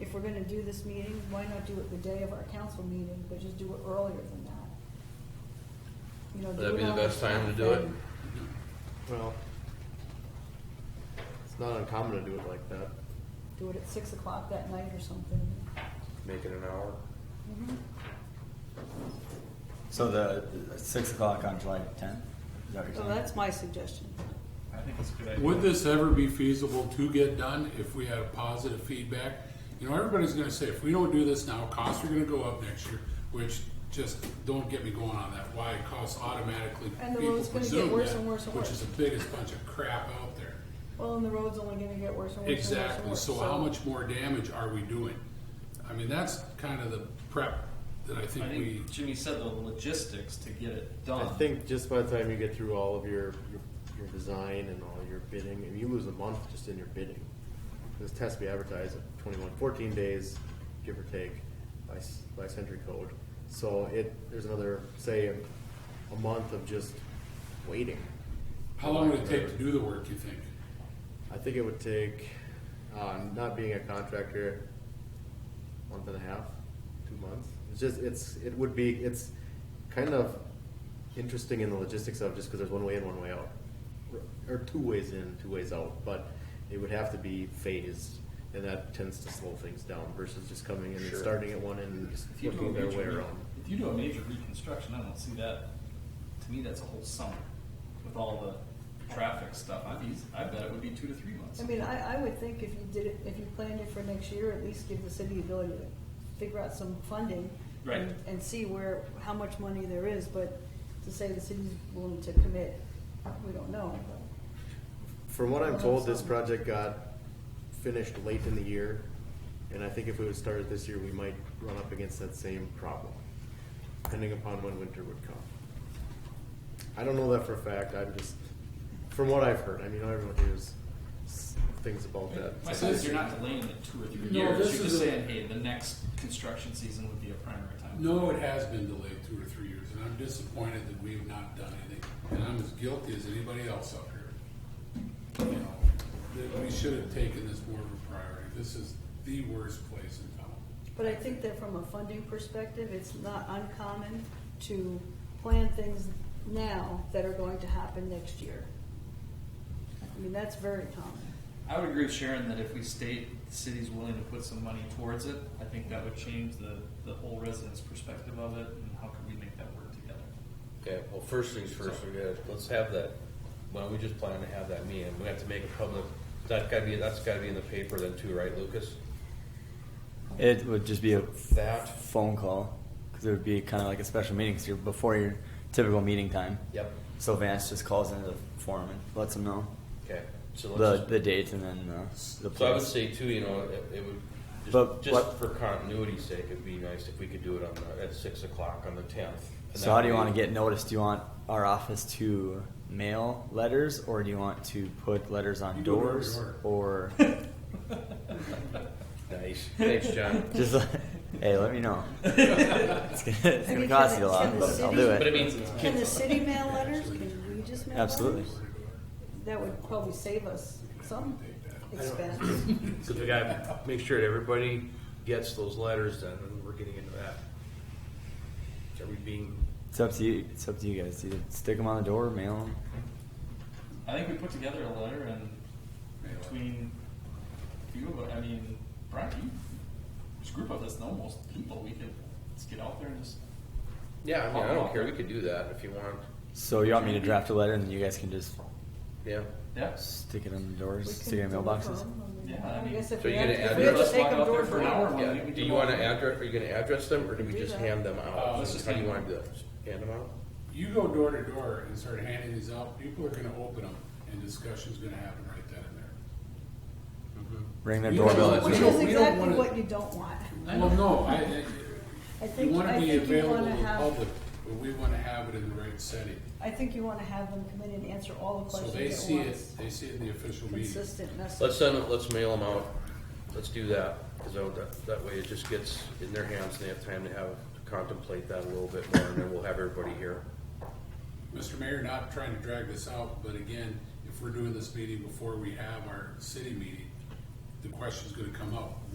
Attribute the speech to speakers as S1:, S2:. S1: if we're gonna do this meeting, why not do it the day of our council meeting, but just do it earlier than that? You know,
S2: Would
S1: do
S2: that be
S1: it
S2: the
S1: on
S2: best time to do it?
S1: Friday.
S3: Well, it's not uncommon to do it like that,
S1: Do it at six o'clock that night or something.
S3: make it an hour.
S4: So the six o'clock on July tenth? Is that what you're
S1: So
S4: saying?
S1: Oh, that's my suggestion.
S5: I think it's a good idea.
S6: Would this ever be feasible to get done if we had a positive feedback? You know, everybody's gonna say, if we don't do this now, costs are gonna go up next year, which just, don't get me going on that, why costs automatically.
S1: And the
S6: people
S1: road's gonna get
S6: presume
S1: worse
S6: that,
S1: and worse and
S6: Which
S1: worse.
S6: is the biggest bunch of crap out there.
S1: Well, and the road's only gonna get worse and worse and worse and worse.
S6: Exactly, so how much more damage are we doing? I mean, that's kind of the prep that I
S5: I
S6: think we,
S5: think Jimmy said the logistics to get it
S3: I
S5: done.
S3: think just by the time you get through all of your, your, your design and all your bidding, and you lose a month just in your bidding. This test has to be advertised at 21, 14 days, give or take, by, s- by century code. So it, there's another, say, a a month of just waiting.
S6: how long would it take to do the work, you think?
S3: I think it would take, uh, not being a contractor, month and a half, two months. It's just, it's, it would be, it's kind of interesting in the logistics of just because there's one way in, one way out. Or two ways in, two ways out, but it would have to be phased, and that tends to slow things down versus just coming in and starting at one end and just
S5: If you do a
S3: working their
S5: major,
S3: way
S5: re-
S3: around.
S5: if you do a major reconstruction, I don't see that, to me, that's a whole summer with all the traffic stuff. I'd be, I bet it would be two to three months.
S1: I mean, I, I would think if you did it, if you planned it for next year, at least give the city the ability to figure out some funding.
S5: Right.
S1: And, and see where, how much money there is, but to say the city's willing to commit, we don't know.
S3: From what I'm told, this project got finished late in the year, and I think if we would start it this year, we might run up against that same problem, depending upon when winter would come. I don't know that for a fact, I'm just, from what I've heard, I mean, everyone hears s- things about that.
S5: My
S3: so-
S5: sense is you're not delaying it two or three
S6: No,
S5: years.
S6: this
S5: You're
S6: is
S5: just
S6: a-
S5: saying, hey, the next construction season would be a primary time.
S6: No, it has been delayed two or three years, and I'm disappointed that we have not done anything. And I'm as guilty as anybody else out here. You know, that we should have taken this more of a priority. This is the worst place in town.
S1: But I think that from a funding perspective, it's not uncommon to plan things now that are going to happen next year. I mean, that's very common.
S5: I would agree with Sharon that if we state the city's willing to put some money towards it, I think that would change the, the whole residents' perspective of it and how could we make that work together.
S2: Okay, well, first things first, we gotta, let's have that, why don't we just plan to have that meeting, we have to make a public, that's gotta be, that's gotta be in the paper then too, right, Lucas?
S4: It would just be a
S2: That.
S4: phone call, because it would be kind of like a special meeting, 'cause you're before your typical meeting time.
S2: Yep.
S4: So Vance just calls into the forum and lets them know
S2: Okay, so
S4: the,
S2: let's,
S4: the date and then uh, the
S2: so I would
S4: place.
S2: say too, you know, it, it would,
S4: But
S2: just, just
S4: what-
S2: for continuity's sake, it'd be nice if we could do it on the, at six o'clock on the tenth.
S4: So how do you want to get noticed? Do you want our office to mail letters, or do you want to put letters on
S6: You do it every
S4: doors,
S6: door.
S4: or
S2: Nice, thanks, John.
S4: just like, hey, let me know. It's gonna,
S1: I
S4: it's gonna
S1: mean,
S4: cost
S1: can
S4: you a
S1: the-
S4: lot,
S1: can the
S4: but I'll
S1: city-
S4: do
S2: But I
S4: it.
S2: mean,
S1: Can the city mail letters? Can we just mail letters?
S4: Absolutely.
S1: That would probably save us some expense.
S2: Because we gotta make sure that everybody gets those letters then, and we're getting into that. Are we being,
S4: It's up to you. It's up to you guys. Either stick them on the door, mail them.
S5: I think we put together a letter and between you, I mean, Brian, you, this group of us, know most people, we could just get out there and just.
S2: yeah, I mean, I don't care, we could do that if you want,
S4: So you want me to draft a letter, and then you guys can just
S2: yeah.
S5: Yeah.
S4: stick it on the
S1: We
S4: doors,
S1: can
S4: stick it in
S1: deliver
S4: mailboxes.
S1: them, and
S5: Yeah, I
S1: I
S5: mean-
S1: guess if
S2: So
S1: we
S2: you're
S1: have
S2: gonna
S1: to, if
S2: add
S1: we have to
S2: this
S1: take
S5: one
S1: them
S5: out there
S1: door
S5: for
S1: to
S5: an hour.
S1: door.
S5: Yeah,
S2: Yeah,
S5: we
S2: do
S5: do
S2: you wanna
S5: all-
S2: address, are you gonna address them, or do we
S1: Do
S2: just
S1: that.
S2: hand them
S6: Uh,
S2: out?
S5: let's just
S2: How do you wanna
S5: hand
S2: do that, Just hand them out?
S6: You go door to door and start handing these out, people are gonna open them, and discussion's gonna happen right then and there.
S4: Ring their
S6: You know,
S4: doorbell.
S6: that's
S4: at
S1: Which
S6: don't-
S1: is
S6: we don't
S1: exactly
S6: wanna-
S1: what you don't want.
S6: Well, no, I,
S1: I
S6: I, you
S1: think,
S6: wanna
S1: I
S6: be
S1: think you
S6: available
S1: wanna
S6: to the
S1: have,
S6: public, but we wanna have it in the right setting.
S1: I think you wanna have them come in and answer all the
S6: So they
S1: questions
S6: see
S1: at
S6: it,
S1: once.
S6: they see it in the official meeting.
S1: Consistent
S2: Let's
S1: message.
S2: send, it- let's mail them out, let's do that, cause that- that, that way it just gets in their hands, and they have time to have, contemplate that a little bit more, and then we'll have everybody here.
S6: Mr. Mayor, not trying to drag this out, but again, if we're doing this meeting before we have our city meeting, the question's gonna come up.